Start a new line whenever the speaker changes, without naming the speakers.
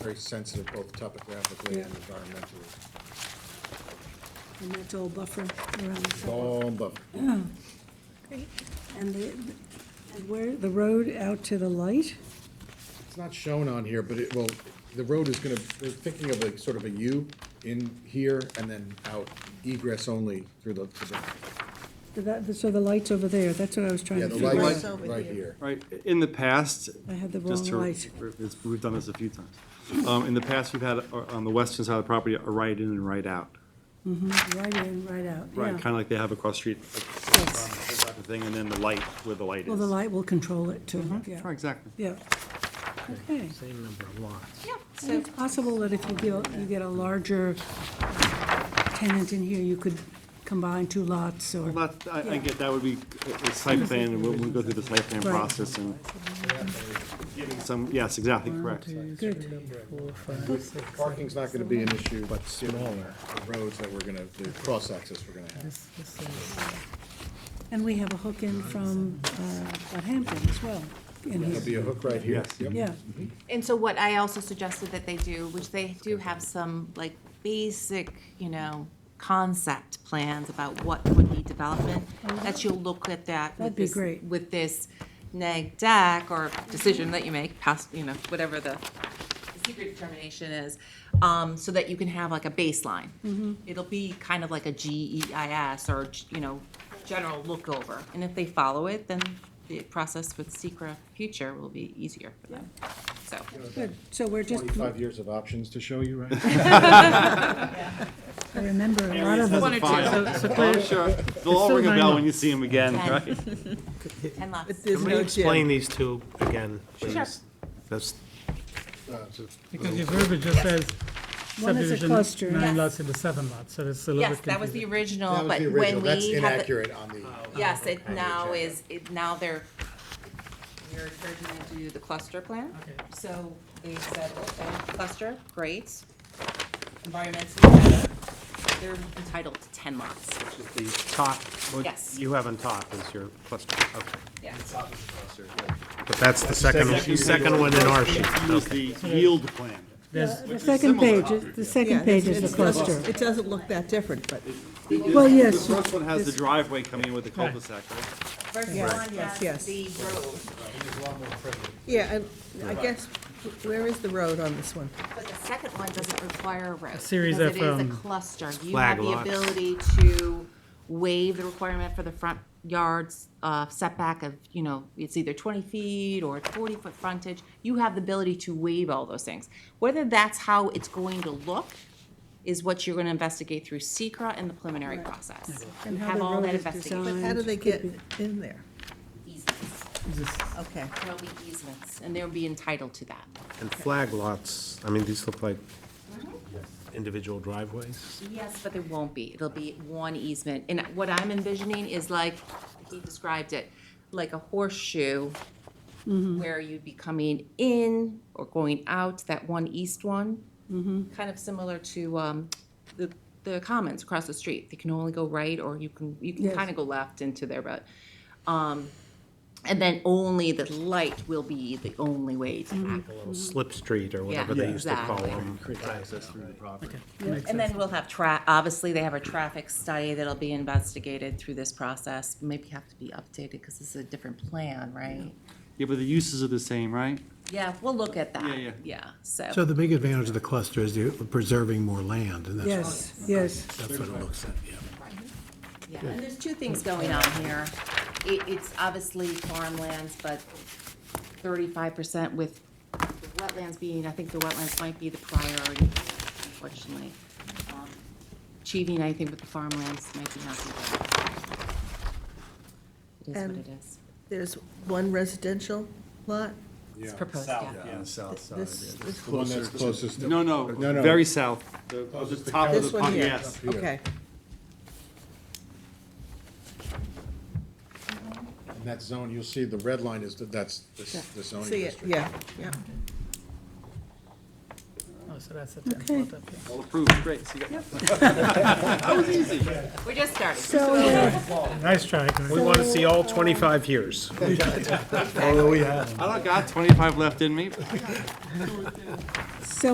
very sensitive both topographically and environmentally.
And that's all buffer around the side.
All but,
And the, and where, the road out to the light?
it's not shown on here, but it, well, the road is gonna, they're thinking of like sort of a U in here and then out egress only through the, to the,
So that- So the light's over there, that's what I was trying
yeah,
to
the
figure
light's
out.
over
right
here.
here.
Right, in the past.
I had the
just
wrong
to-
light.
it's- We've done this a few times. Um, In the past, we've had uh, on the western side of the property, a right in and right out.
Right in, right out,
Right, kind
yeah.
of like they have across the street. like, um, that type of Thing, and then the light, where the light is. Mm-hmm.
Well, the light will control it too,
Right,
yeah.
Exactly.
Yeah. Okay.
Same number of lots.
Yeah,
And
so,
it's possible that if you get, you get a larger tenant in here, you could combine two lots or.
But I,
Yeah.
I get, that would be a a site plan, and we'll, we'll go through the site plan
Right.
process and giving some, yes, exactly, correct.
Good.
Parking's not gonna be an issue, but smaller, the roads that we're gonna, the cross-access we're gonna have.
And we have a hook in from uh, Hampton as well, in
There'll be
here.
a hook right here.
Yes.
Yep.
Yeah,
and so what I also suggested that they do, which they do have some like basic, you know, concept plans about what would be development, that you'll look at that with
Oh, That'd be
this,
great.
with this neg deck or decision that you make, pass, you know, whatever the the secret determination is, um, so that you can have like a baseline.
Mm-hmm.
It'll be kind of like a GEIS or, you know, general look over. And if they follow it, then the process with Secra Future will be easier for them. So,
good. So we're just,
Twenty-five years of options to show you, right? Uh,
I remember a lot of them.
One or two. uh, They'll all
so
ring a bell
minor.
when you see them again,
Ten.
right?
and lots.
Can we explain these two again, please? That's,
Because your verbiage just says
One is a cluster.
Yes.
subdivision, nine lots into seven lots, so it's a little
Yes,
bit
that was the
confusing.
That
original,
was
Oh, but
the
when
original,
we
that's
had the,
inaccurate on the,
yes, it
Okay,
now
yeah.
is, it, now they're, you're encouraging them to do the cluster plan. So they said, okay, cluster, great. Environmentally, better. they're entitled to ten lots.
just the top,
Yes.
what you have on top is your cluster, okay.
Yes.
But that's the second,
Second-
second one in our sheet.
Use the yield plan.
The second page, is- the second page is the cluster.
It doesn't look that different, but
Well, yes.
The first one has the driveway coming in with the cul-de-sac, right?
First one has
yes.
the road,
yeah, and I guess, where is the road on this one?
but the second one doesn't require a road.
series
because
of,
It is a
um,
cluster. You have
flag
the
lots.
ability to waive the requirement for the front yards uh, setback of, you know, it's either twenty feet or forty foot frontage. You have the ability to waive all those things. Whether that's how it's going to look is what you're gonna investigate through secra and the preliminary process. You
And how
have
the
all
road
that
is
But
investigation.
designed.
how do they get in there?
Easements.
Okay.
There'll be easements, and they'll be entitled to that.
And flag lots, I mean, these look like individual driveways.
Yes, but there won't be. It'll be one easement. And what I'm envisioning is like, he described it, like a horseshoe where you'd be coming in or going out, that one east one. Kind of similar to um, the, the commons across the street. They can only go right or you can, you can
Yes.
kind of go left into there, but. um, And then only the light will be the only way to access.
Little Slip street or whatever they used to call
exactly.
them.
Access through the property.
And then we'll have tra, obviously, they have a traffic study that'll be investigated through this process, maybe have to be updated, because this is a different plan, right?
Yeah, but the uses are the same, right?
Yeah, we'll look at that.
Yeah, yeah.
So
so,
the big advantage of the cluster is you're preserving more land, and that's,
Yes, yes.
that's what it looks like, yeah.
yeah, and there's two things going on here. It, it's obviously farmlands, but thirty-five percent with the wetlands being, I think the wetlands might be the priority, unfortunately. Um, Achieving, I think, with the farmlands might be not the best. It is what
And-
it is.
There's one residential lot?
It's proposed,
South,
yeah.
yeah, south side.
This, this,
the one that's closest to.
No, no,
No, no.
very south, the,
Closest
the
to
top of the,
this one
pond,
here?
yes.
here.
Okay,
In that zone, you'll see the red line is, the- that's the the zoning
see it,
district.
yeah, yeah.
Oh, so that's the tenth
Okay.
lot up here.
All approved, great, so you got. That was easy.
We're just starting.
So,
Nice try, Glenn.
We want to see all 25 years.
I don't got twenty-five left in me,
so